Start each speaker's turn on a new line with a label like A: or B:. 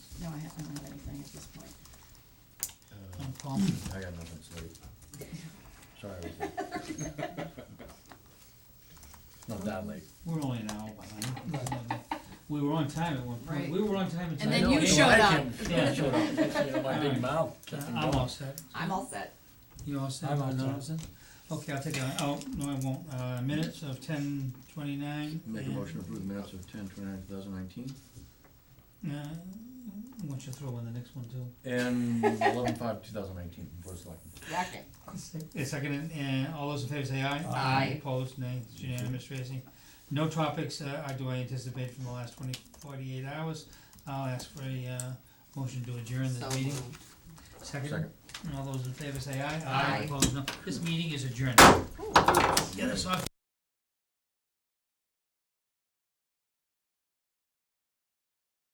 A: I don't have anything at this point.
B: Uh,
C: I'm confident.
B: I got nothing to say. Sorry. I was late. Not that late.
C: We're only an hour behind. We were on time at one point. We were on time
A: And
C: until.
A: then
C: I
A: you
C: know-
A: showed up.
B: Yeah, showed up, you know, my big mouth. kept me
C: I'm
B: going.
C: all set.
A: I'm all set.
C: You all set?
B: I'm all
C: No?
B: set.
C: Okay, I'll take a, oh, no, I won't. Uh, minutes of ten twenty-nine.
B: Make a motion to approve the minutes of ten twenty-nine, two thousand nineteen,
C: Uh, why don't you throw in the next one too?
B: and eleven five, two thousand nineteen, Board of Selectmen.
A: Rocket.
C: A second, and uh, all those in favor say aye.
A: Aye.
C: Opposed, nay, it's unanimous, Tracy. No topics, uh, I do I anticipate from the last twenty, forty-eight hours. I'll ask for a, uh, motion to adjourn
A: So
C: this meeting.
A: moved.
C: Second,
B: Second.
C: all those in favor say aye.
A: Aye.
C: Opposed, no. This meeting is adjourned.
A: Cool.
C: Get us off.